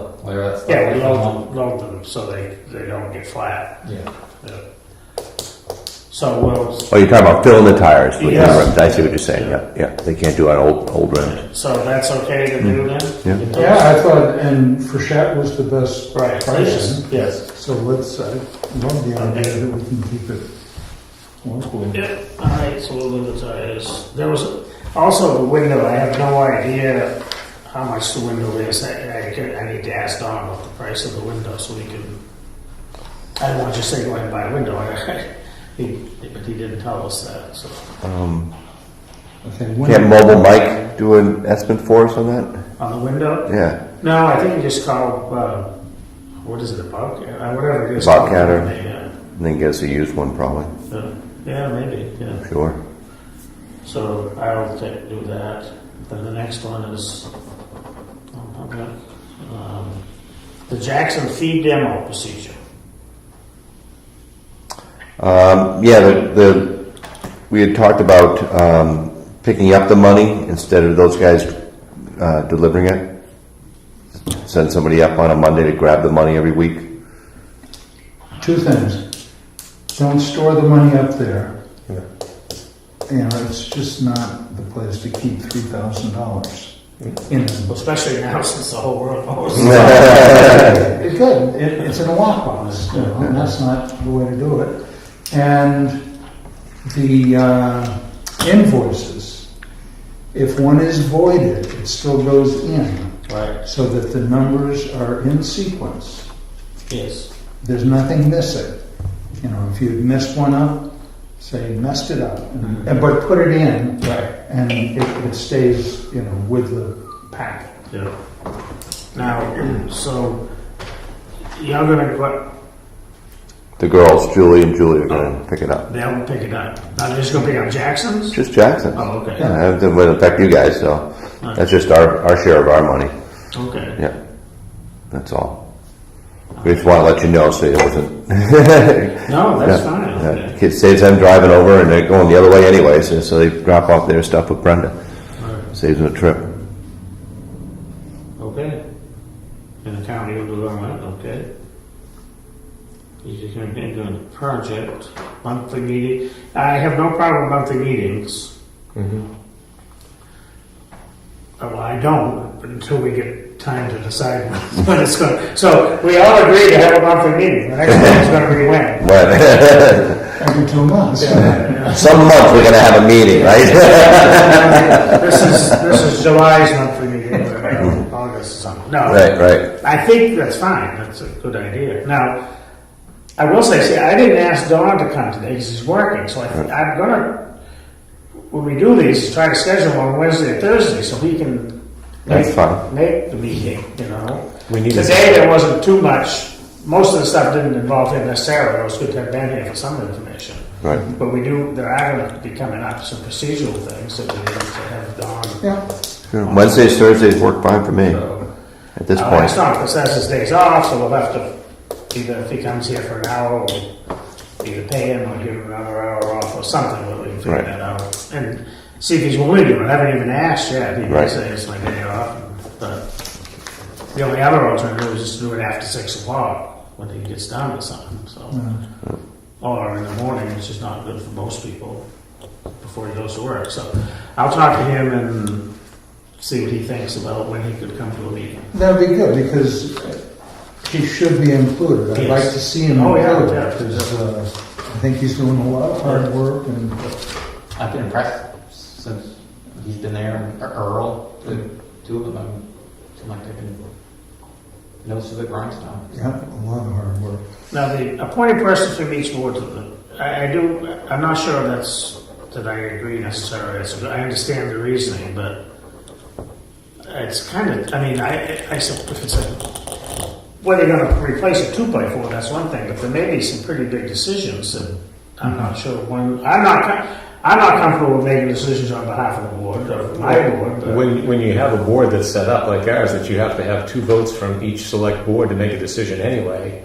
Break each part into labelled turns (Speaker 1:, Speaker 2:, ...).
Speaker 1: Where that stuff
Speaker 2: Yeah, we
Speaker 1: is.
Speaker 2: load them, load them so they, they don't get flat.
Speaker 1: Yeah.
Speaker 2: So we'll,
Speaker 3: Oh, you're talking about filling the tires with new
Speaker 2: Yes.
Speaker 3: rims. I see what you're saying. Yeah, yeah. They can't do on old old rims.
Speaker 2: so that's okay to do then?
Speaker 3: Yeah.
Speaker 2: Get those-
Speaker 4: Yeah, I thought, and Frechette was the best
Speaker 2: Right,
Speaker 4: price.
Speaker 2: yes, yes.
Speaker 4: So let's, I love the idea that we can keep it local.
Speaker 2: Yeah, all right, so we'll leave the tires. There was also the window, I have no idea how much the window is. I, I could, I need to ask Don about the price of the window so we can, I don't want to just say go ahead and buy a window. He, but he didn't tell us that, so.
Speaker 3: Um,
Speaker 4: Okay,
Speaker 3: can't
Speaker 4: when,
Speaker 3: Mobile Mike do an estimate for us on that?
Speaker 2: On the window?
Speaker 3: Yeah.
Speaker 2: No, I think you just call, uh, what is it, a Bobcat, Uh, whatever it is.
Speaker 3: Bobcat or-
Speaker 2: Yeah,
Speaker 3: And then get us a used one, probably.
Speaker 2: yeah. Yeah, maybe, yeah.
Speaker 3: Sure.
Speaker 2: So I'll take, do that. Then the next one is, oh, okay, um, the Jackson feed demo procedure.
Speaker 3: Um, yeah. The, the we had talked about um, picking up the money instead of those guys uh, delivering it. Send somebody up on a Monday to grab the money every week.
Speaker 4: two things. Don't store the money up there.
Speaker 3: Yeah.
Speaker 4: You know, it's just not the place to keep three thousand dollars in a
Speaker 2: Especially now since the whole world knows.
Speaker 4: It could, it, it's in a lockbox, you know, and that's not the way to do it. And the uh, invoices, if one is voided, it still goes in,
Speaker 2: Right,
Speaker 4: so that the numbers are in sequence.
Speaker 2: yes,
Speaker 4: There's nothing missing. You know, if you messed one up, say you messed it up, and- and, but put it in,
Speaker 2: right,
Speaker 4: and it, it stays, you know, with the packet.
Speaker 2: yeah. Now, so you're gonna, go-
Speaker 3: The girls, Julie and Julie, are going to pick it up.
Speaker 2: they'll pick it up. Now they're just gonna pick up Jackson's?
Speaker 3: Just Jackson.
Speaker 2: Oh, okay,
Speaker 3: Yeah, that doesn't affect you guys, so that's just our, our share of our money.
Speaker 2: okay.
Speaker 3: Yeah, that's all. We just want to let you know so it wasn't.
Speaker 2: No, that's
Speaker 3: Yeah,
Speaker 2: fine.
Speaker 3: yeah.
Speaker 2: okay.
Speaker 3: It saves them driving over and they're going the other way anyway, so, so they drop off their stuff with Brenda.
Speaker 2: All right.
Speaker 3: Saves them a trip.
Speaker 2: Okay. And the county will do all that, okay? He's just gonna get into a project, monthly meeting. I have no problem with monthly meetings.
Speaker 3: Mm-hmm.
Speaker 2: Oh, Well, I don't, but until we get time to decide when it's gonna, so we all agree to have a monthly meeting. The next one's gonna be when?
Speaker 3: But
Speaker 4: Every two months.
Speaker 3: some month we're going to have a meeting, right?
Speaker 2: This is, this is July's monthly meeting, August or something. No.
Speaker 3: Right, right.
Speaker 2: I think that's fine. That's a good idea. Now, I will say, see, I didn't ask Don to come today because he's working. So I, I'm gonna, when we do these, try to schedule on Wednesday or Thursday so he can.
Speaker 3: That's
Speaker 2: make-
Speaker 3: fine.
Speaker 2: Make the meeting, you know.
Speaker 5: We need to-
Speaker 2: Today there wasn't too much. Most of the stuff didn't involve him necessarily. It was good to have Ben here for some information.
Speaker 3: Right.
Speaker 2: But we do, there are gonna be coming up some procedural things that we need to have Don.
Speaker 4: Yeah.
Speaker 3: Sure. Wednesdays, Thursdays work fine for me at this
Speaker 2: Uh, It's
Speaker 3: point.
Speaker 2: not, because that's his days off, so we'll have to, either if he comes here for an hour, we'll either pay him or give him another hour off or something, we'll we'll figure
Speaker 3: Right.
Speaker 2: that out. And see if he's willing to, I haven't even asked yet, he may
Speaker 3: Right.
Speaker 2: say it's my day off, but the only other alternative is just do it after six o'clock, when he gets done or something,
Speaker 3: Mm-hmm.
Speaker 2: so. Or in the morning, which is not good for most people, before he goes to work, so I'll talk to him and see what he thinks about when he could come to a meeting.
Speaker 4: That'd be good, because he should be included. I'd like
Speaker 2: Yes.
Speaker 4: to see him
Speaker 2: Oh, yeah,
Speaker 4: included,
Speaker 2: yeah.
Speaker 4: because uh, I think he's doing a lot of hard work, and
Speaker 5: I've been impressed since he's been there, or Earl, the two of them, I'm, seem like they've been nose to the grindstone.
Speaker 4: yeah, a lot of hard work.
Speaker 2: Now, the appointed person from each board, I, I do, I'm not sure that's, that I agree necessarily, It's- I understand the reasoning, but it's kind of, I mean, I, I, sup- if it's a, whether you're gonna replace a two-by-four, that's one thing, but there may be some pretty big decisions that I'm not sure when, I'm not, com- I'm not comfortable with making decisions on behalf of the board, of my board, but,
Speaker 6: When, when you have a board that's set up like ours, that you have to have two votes from each select board to make a decision anyway,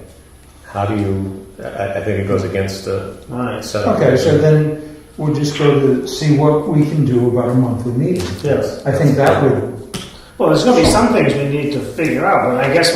Speaker 6: how do you, I, I think it goes against the
Speaker 2: all right,
Speaker 6: setup.
Speaker 4: Okay, so then we'll just go to see what we can do about a monthly meeting.
Speaker 2: yes.
Speaker 4: I think that would
Speaker 2: Well, there's gonna be some things we need to figure out, but I guess what